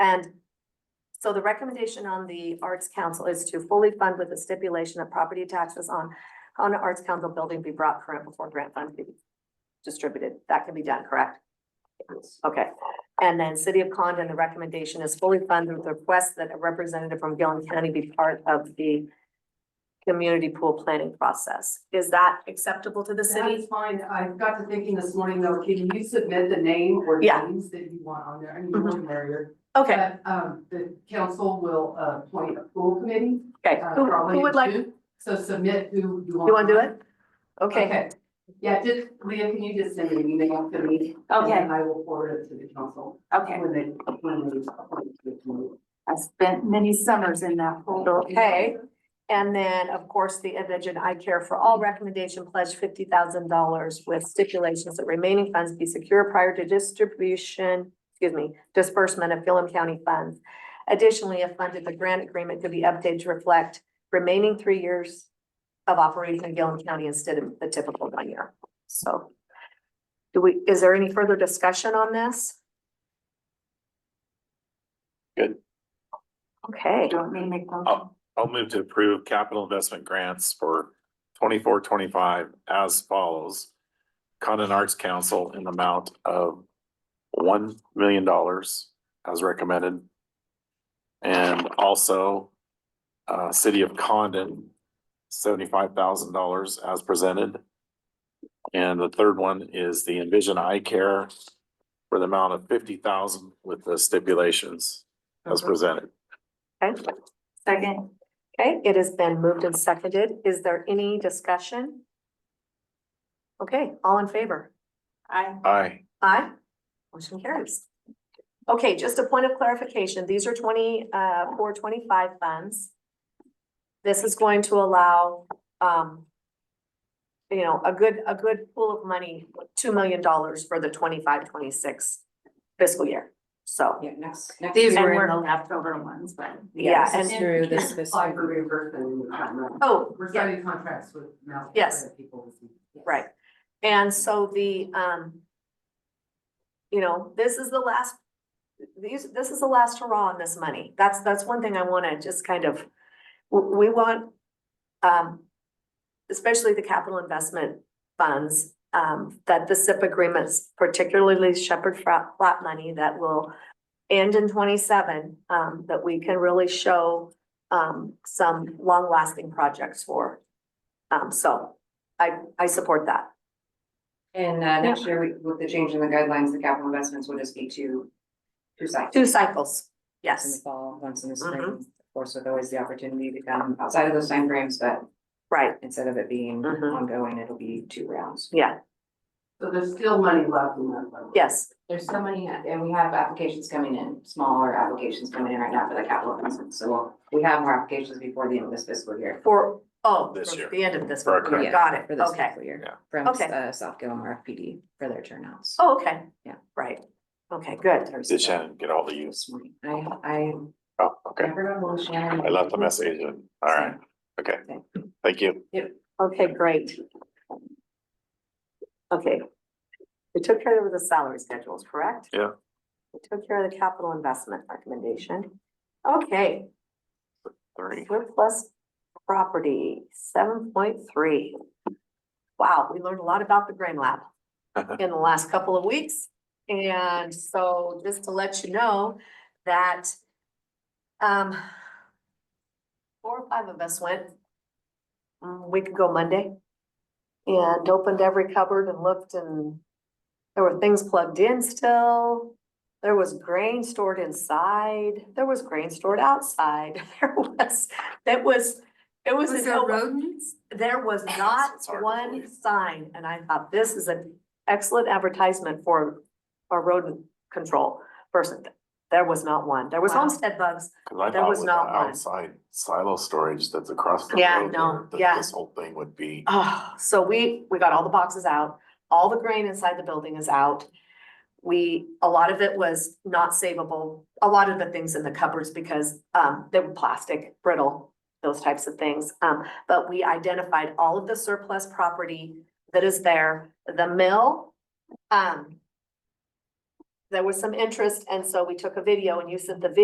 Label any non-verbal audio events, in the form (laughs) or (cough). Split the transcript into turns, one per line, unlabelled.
And so the recommendation on the Arts Council is to fully fund with the stipulation that property taxes on, on the Arts Council building be brought current before grant funds be distributed. That can be done, correct? Okay, and then City of Condon, the recommendation is fully funded with the request that a representative from Gillen County be part of the community pool planning process. Is that acceptable to the
That's
city?
fine. I got to thinking this morning though, can you submit the name or
Yeah.
names that you want on there? I mean,
Mhm.
the merrier.
Okay,
But, um, the council will uh, appoint a pool committee.
okay,
uh,
who,
probably
who would like, you
two. So submit who you want.
wanna do
on.
it? Okay,
Yeah, just, Leah, can you just send an email to me? And
Okay,
then I will forward it to the council
okay.
when they, when they appoint the committee.
I spent many summers in that pool.
Okay. and then, of course, the Envision I Care for All recommendation pledged fifty thousand dollars with stipulations that remaining funds be secure prior to distribution, excuse me, disbursement of Gillum County funds. Additionally, if funded, the grant agreement could be updated to reflect remaining three years of operation in Gillum County instead of the typical one year, so. Do we, is there any further discussion on this?
Good.
Okay.
Do you want me to make motion?
Oh. I'll move to approve capital investment grants for twenty-four, twenty-five as follows. Condon Arts Council in the amount of one million dollars as recommended. And also, uh, City of Condon, seventy-five thousand dollars as presented. And the third one is the Envision Eye Care for the amount of fifty thousand with the stipulations as presented.
Okay,
Second,
okay, it has been moved and seconded. Is there any discussion? Okay, all in favor?
I,
Aye.
Aye. Motion carries. Okay, just a point of clarification, these are twenty, uh, four twenty-five funds. This is going to allow, um, you know, a good, a good pool of money, two million dollars for the 25-26 fiscal year. So,
Yeah, next, next.
these
year.
were in the leftover ones, but.
yeah, and,
Through this
And Apply for
fiscal-
reimbursement in the timeline.
oh,
We're
yeah.
signing contracts with Mountain.
Yes.
People. this week. Yes.
Right, and so the, um. You know, this is the last, these, this is the last hurrah on this money, that's, that's one thing I wanna just kind of, w- we want. Um, especially the capital investment funds, um, that the SIP agreements, particularly Shepherd Fra- Flat money that will. End in twenty-seven, um, that we can really show, um, some long-lasting projects for. Um, so I, I support that.
And uh next year, we- with the change in the guidelines, the capital investments will just be two. Two cycles.
Two cycles,
Once In the
yes,
fall, once in the
Mhm.
spring, of course, with always the opportunity to come outside of those timeframes, but
right,
instead of it being
Mhm.
ongoing, it'll be two rounds.
yeah,
So there's still money left in that. fund.
yes,
There's so many, and we have applications coming in, smaller applications coming in right now for the capital investments, so we'll- we have more applications before the end of this fiscal year.
for, oh,
This
for
year.
the end of this
For our
one,
current-
got it,
For this
okay.
fiscal year,
Yeah.
from
Okay.
uh South Gilmore FPD for their turnouts.
Oh, okay.
Yeah.
Right, okay, good,
Did Shannon get all the use?
This morning. I I
Oh, okay.
never know. when Shannon-
I left a message in. All right. Okay. Thank you.
okay, great. Okay. We took care of the salary schedules, correct?
Yeah.
We took care of the capital investment recommendation. Okay,
Three.
surplus property, seven point three. Wow, we learned a lot about the Grain Lab in the last couple of weeks. And so just to let you know that um four or five of us went mm, a week ago Monday and opened every cupboard and looked and there were things plugged in still. There was grain stored inside. There was grain stored outside. (laughs) There was, that was, it was.
Was
a
there
no-
rodents?
there was not
It's hard to
one
believe.
sign, and I thought this is an excellent advertisement for a rodent control person. There was not one. There was
Wow.
homestead bugs.
Cause I
There
thought
was
with the
not one.
outside silo storage that's across the
Yeah,
road
no,
there,
yeah.
that this whole thing would be.
Oh, so we, we got all the boxes out, all the grain inside the building is out. We, a lot of it was not savable, a lot of the things in the cupboards because, um, they were plastic, brittle, those types of things. Um, but we identified all of the surplus property that is there, the mill, um, there was some interest, and so we took a video and you sent the video